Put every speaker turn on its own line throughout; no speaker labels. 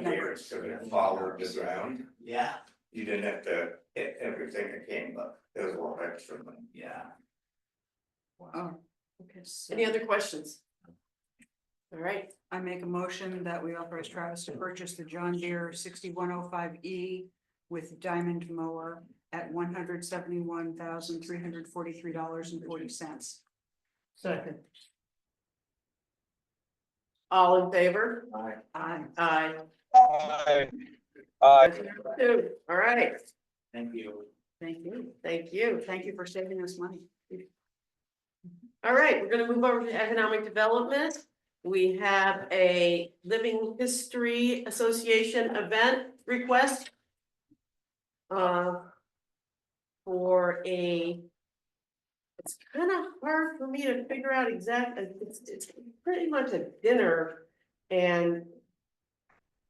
records could have followed the ground.
Yeah,
You didn't have to hit everything that came up, there was a lot of extra money.
yeah.
Oh,
Okay, any other questions? All right,
I make a motion that we authorize Travis to purchase the John Deere sixty-one oh five E with diamond mower at one hundred seventy-one thousand, three hundred forty-three dollars and forty cents.
Second.
all in favor?
Aye.
Aye.
Aye.
Aye. Aye.
Two, all right,
Thank you.
Thank you.
thank you.
Thank you for saving us money.
All right, we're gonna move over to economic development. We have a Living History Association event request. Uh. For a. It's kind of hard for me to figure out exactly, it's, it's pretty much a dinner and.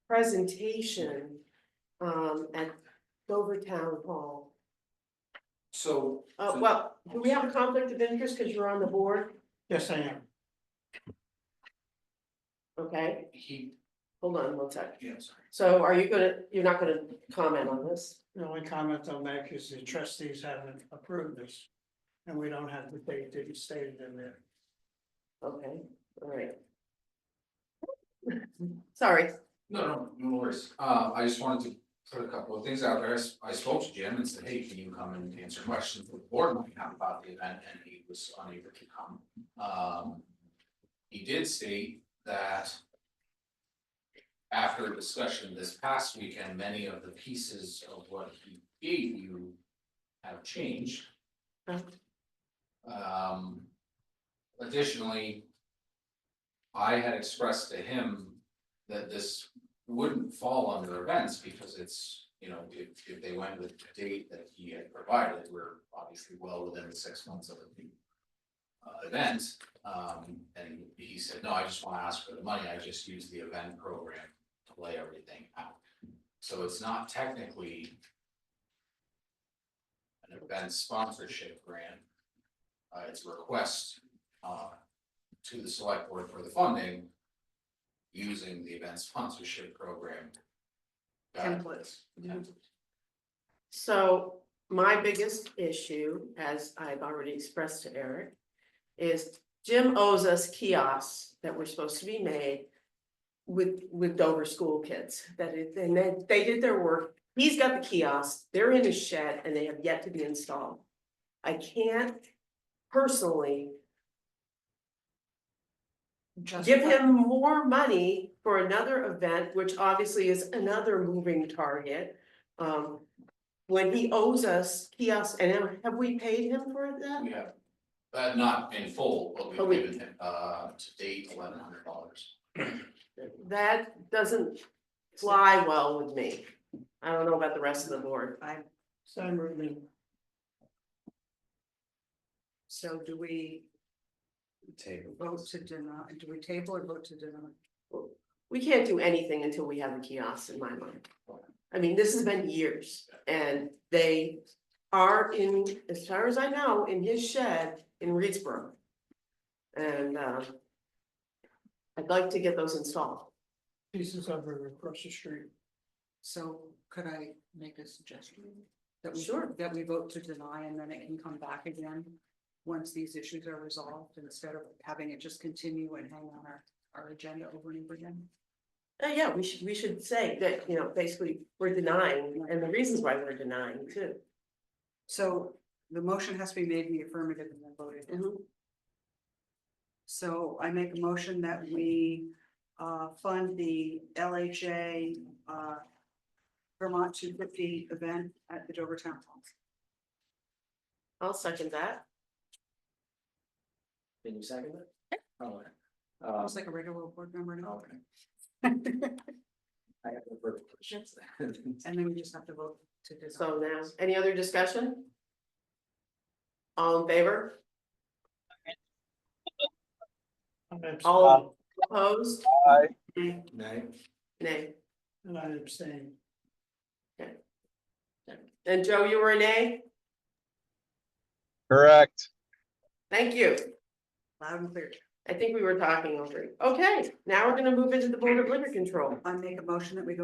Presentation, um, at Dover Town Hall.
So,
Uh, well, do we have a conflict of interest because you're on the board?
yes, I am.
Okay,
He,
hold on one sec.
yeah, sorry.
So are you gonna, you're not gonna comment on this?
The only comment I'll make is the trustees haven't approved this. And we don't have the date that you stated in there.
Okay, all right. Sorry,
No, no, no worries. Uh, I just wanted to put a couple of things out there. I s- I spoke to Jim and said, hey, can you come and answer questions that the board might have about the event? And he was unable to come. Um, he did state that after discussion this past weekend, many of the pieces of what he gave you have changed.
Right.
Um, additionally, I had expressed to him that this wouldn't fall under events because it's, you know, if if they went with the date that he had provided, we're obviously well within the six months of the uh event, um and he said, no, I just wanna ask for the money, I just use the event program to lay everything out. So it's not technically an event sponsorship grant. Uh, it's a request uh to the select board for the funding using the event sponsorship program.
Templates.
Templates.
so my biggest issue, as I've already expressed to Eric. Is Jim owes us kiosks that were supposed to be made. With with Dover school kids, that it, and then they did their work, he's got the kiosks, they're in his shed and they have yet to be installed. I can't personally give him more money for another event, which obviously is another moving target. Um, when he owes us kiosks, and have we paid him for that?
We have, uh, not in full, but
But
we've
we-
given him, uh, to date, eleven hundred dollars.
That doesn't fly well with me. I don't know about the rest of the board.
Sam Rubin,
So do we vote to deny, do we table or vote to deny?
We can't do anything until we have the kiosks in my mind. I mean, this has been years and they are in, as far as I know, in his shed in Reedsboro. And uh. I'd like to get those installed.
pieces over across the street.
So could I make a suggestion? That we,
Sure.
that we vote to deny and then it can come back again, once these issues are resolved, instead of having it just continue and hang on our, our agenda over and over again.
Uh, yeah, we should, we should say that, you know, basically, we're denying and the reasons why we're denying too.
So the motion has to be made in the affirmative and then voted. So I make a motion that we uh fund the LHA uh. Vermont two fifty event at the Dover Town Hall.
I'll second that.
Can you second it? All right. Um,
It's like a regular board member now,
okay. I have no further questions.
and then we just have to vote to dissolve.
So now, any other discussion? All in favor?
I'm abst-
All opposed?
Nay.
Nay.
And I abstain.
And Joe, you were a nay?
Correct.
Thank you.
Loud and clear.
I think we were talking over. Okay, now we're gonna move into the Board of Liquor Control.
I make a motion that we go